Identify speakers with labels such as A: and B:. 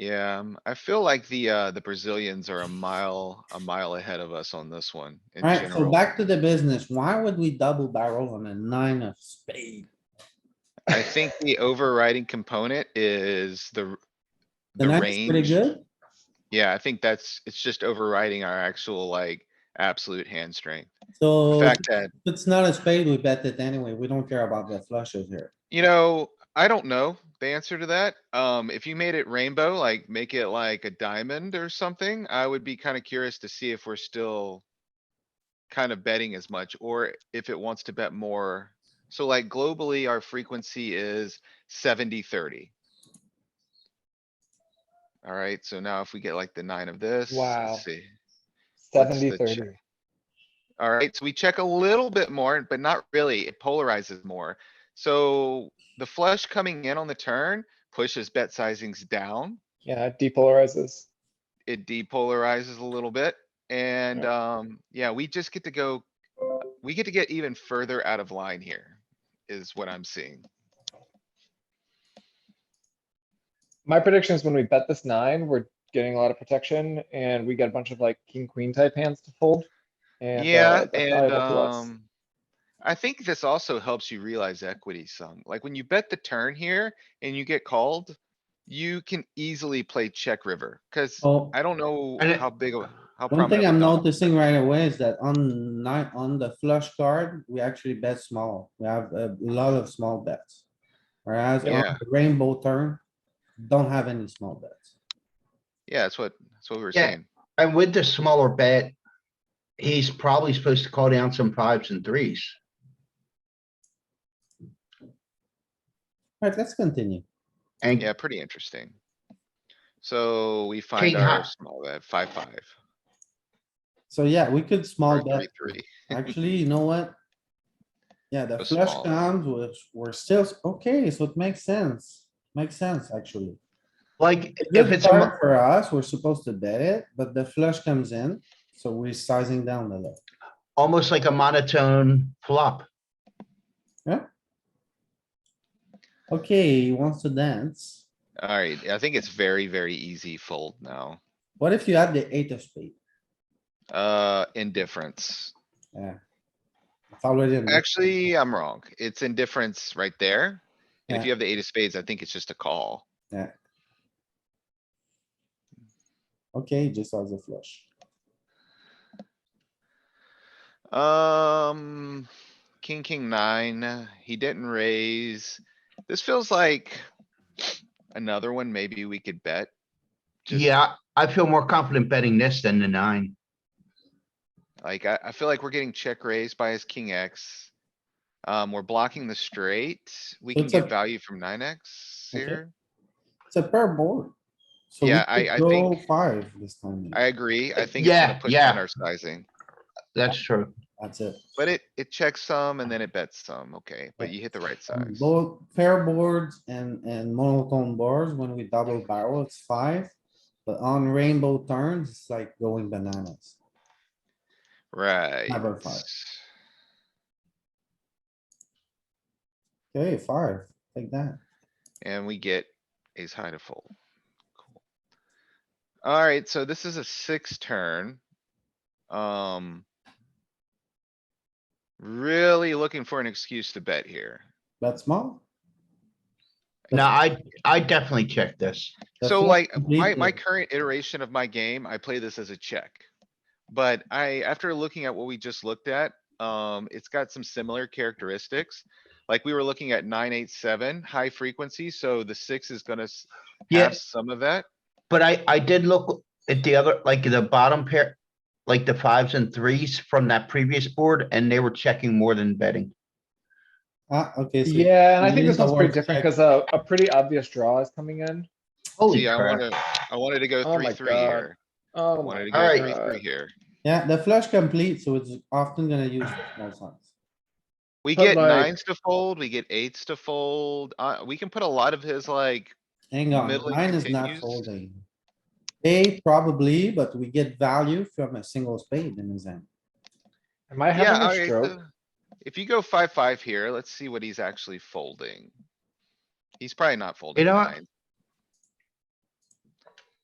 A: Yeah, um, I feel like the, uh, the Brazilians are a mile, a mile ahead of us on this one in
B: Alright, so
A: general.
B: back to the business. Why would we double barrel on a nine of spade?
A: I think the overriding component is the, r-
B: The
A: the
B: nine is pretty
A: range.
B: good.
A: Yeah, I think that's, it's just overriding our actual like absolute hand strength. The
B: So if
A: fact that,
B: it's not a spade, we bet it anyway. We don't care about the flushes here.
A: you know, I don't know the answer to that. Um, if you made it rainbow, like make it like a diamond or something, I would be kinda curious to see if we're still kind of betting as much or if it wants to bet more. So like globally, our frequency is 70-30. Alright, so now if we get like the nine of this,
C: Wow.
A: let's see. What's the
C: Seventy thirty.
A: check? Alright, so we check a little bit more, but not really. It polarizes more. So the flush coming in on the turn pushes bet sizings down.
C: Yeah, it depolarizes.
A: It depolarizes a little bit and, um, yeah, we just get to go. We get to get even further out of line here is what I'm seeing.
C: My prediction is when we bet this nine, we're getting a lot of protection and we get a bunch of like king, queen type hands to fold. And, uh,
A: Yeah,
C: that's
A: and,
C: valuable to us.
A: um. I think this also helps you realize equity some. Like when you bet the turn here and you get called. You can easily play check river, cuz
B: Oh,
A: I don't know
D: And it-
A: how big of, how
B: one
A: prominent.
B: thing I'm
A: of a-
B: noticing right away is that on nine, on the flush card, we actually bet small. We have a lot of small bets. Whereas on
A: Yeah.
B: the rainbow turn, don't have any small bets.
A: Yeah, that's what, that's what we were
D: Yeah.
A: saying.
D: And with the smaller bet, he's probably supposed to call down some fives and threes.
B: Alright, let's continue.
D: And
A: Yeah, pretty interesting. So we
D: King
A: find
D: high.
A: our small bet, five, five,
B: So yeah, we could
A: or
B: small bet
A: three, three.
B: Actually, you know what? Yeah, the
A: Go
B: flush
A: small.
B: comes, which we're still, okay, so it makes sense. Makes sense, actually.
D: like, if
B: Good
D: it's, a mo-
B: card for us, we're supposed to bet it, but the flush comes in, so we're sizing down a little.
D: almost like a monotone flop,
B: Okay, he wants to dance.
A: Alright, I think it's very, very easy fold now.
B: What if you have the eight of spade?
A: Uh, indifference.
B: Yeah. It's already. in the-
A: Actually, I'm wrong. It's indifference right there. And
B: Yeah.
A: if you have the eight of spades, I think it's just a call.
B: Okay, he just has a flush.
A: Um, king, king nine, he didn't raise. This feels like another one maybe we could bet. Just-
D: yeah, I feel more confident betting this than the nine.
A: Like, I, I feel like we're getting check raised by his king X. Um, we're blocking the straight. We can
B: It's a-
A: get value from nine X
B: Okay.
A: here.
B: It's a pair board. So we
A: Yeah, I-
B: could
A: I
B: go
A: think-
B: Five this time,
A: I agree. I think it's
D: Yeah,
A: gonna push
D: yeah.
A: on our sizing,
D: That's true.
B: that's it.
A: but it, it checks some and then it bets some. Okay, but
B: Yeah.
A: you hit the right
B: On
A: size.
B: Both pair boards and, and monotone boards, when we double barrel, it's five. But on rainbow turns, it's like going bananas.
A: Right.
B: Never five. Okay, five, like that.
A: And we get ace high to fold. Cool. Alright, so this is a six turn. Um. Really looking for an excuse to bet here.
B: That's small.
D: No, I, I definitely check this.
B: The
A: So
B: flush
A: like, my,
B: completely.
A: my current iteration of my game, I play this as a check. But I, after looking at what we just looked at, um, it's got some similar characteristics. Like we were looking at nine, eight, seven, high frequency, so the six is gonna s- have
D: Yes,
A: some of that.
D: but I, I did look at the other, like the bottom pair, like the fives and threes from that previous board, and they were checking more than betting.
B: Ah, okay, so
C: Yeah, and I
B: you
C: think
B: need
C: this
B: the
C: one's pretty
B: word
C: different
B: check.
C: because a, a pretty obvious draw is coming in.
D: Holy
A: See, I
D: crap.
A: wanna, I wanted to go
C: Oh
A: three,
C: my
A: three
C: God.
A: here. I
C: Oh
A: Wanted to
C: my
A: go
D: Alright.
A: three, three
C: God.
A: here.
B: yeah, the flush complete, so it's often gonna use the small size.
A: We
C: But
A: get
C: like-
A: nines to fold, we get eights to fold. Uh, we can put a lot of his like,
B: Hang on,
A: Middle
B: nine is not
A: continues.
B: folding. Eight probably, but we get value from a single spade in his hand.
C: Am I
A: yeah,
C: having a
A: alright,
C: stroke?
A: so If you go five, five here, let's see what he's actually folding. He's probably not folding
D: know what?
A: nines.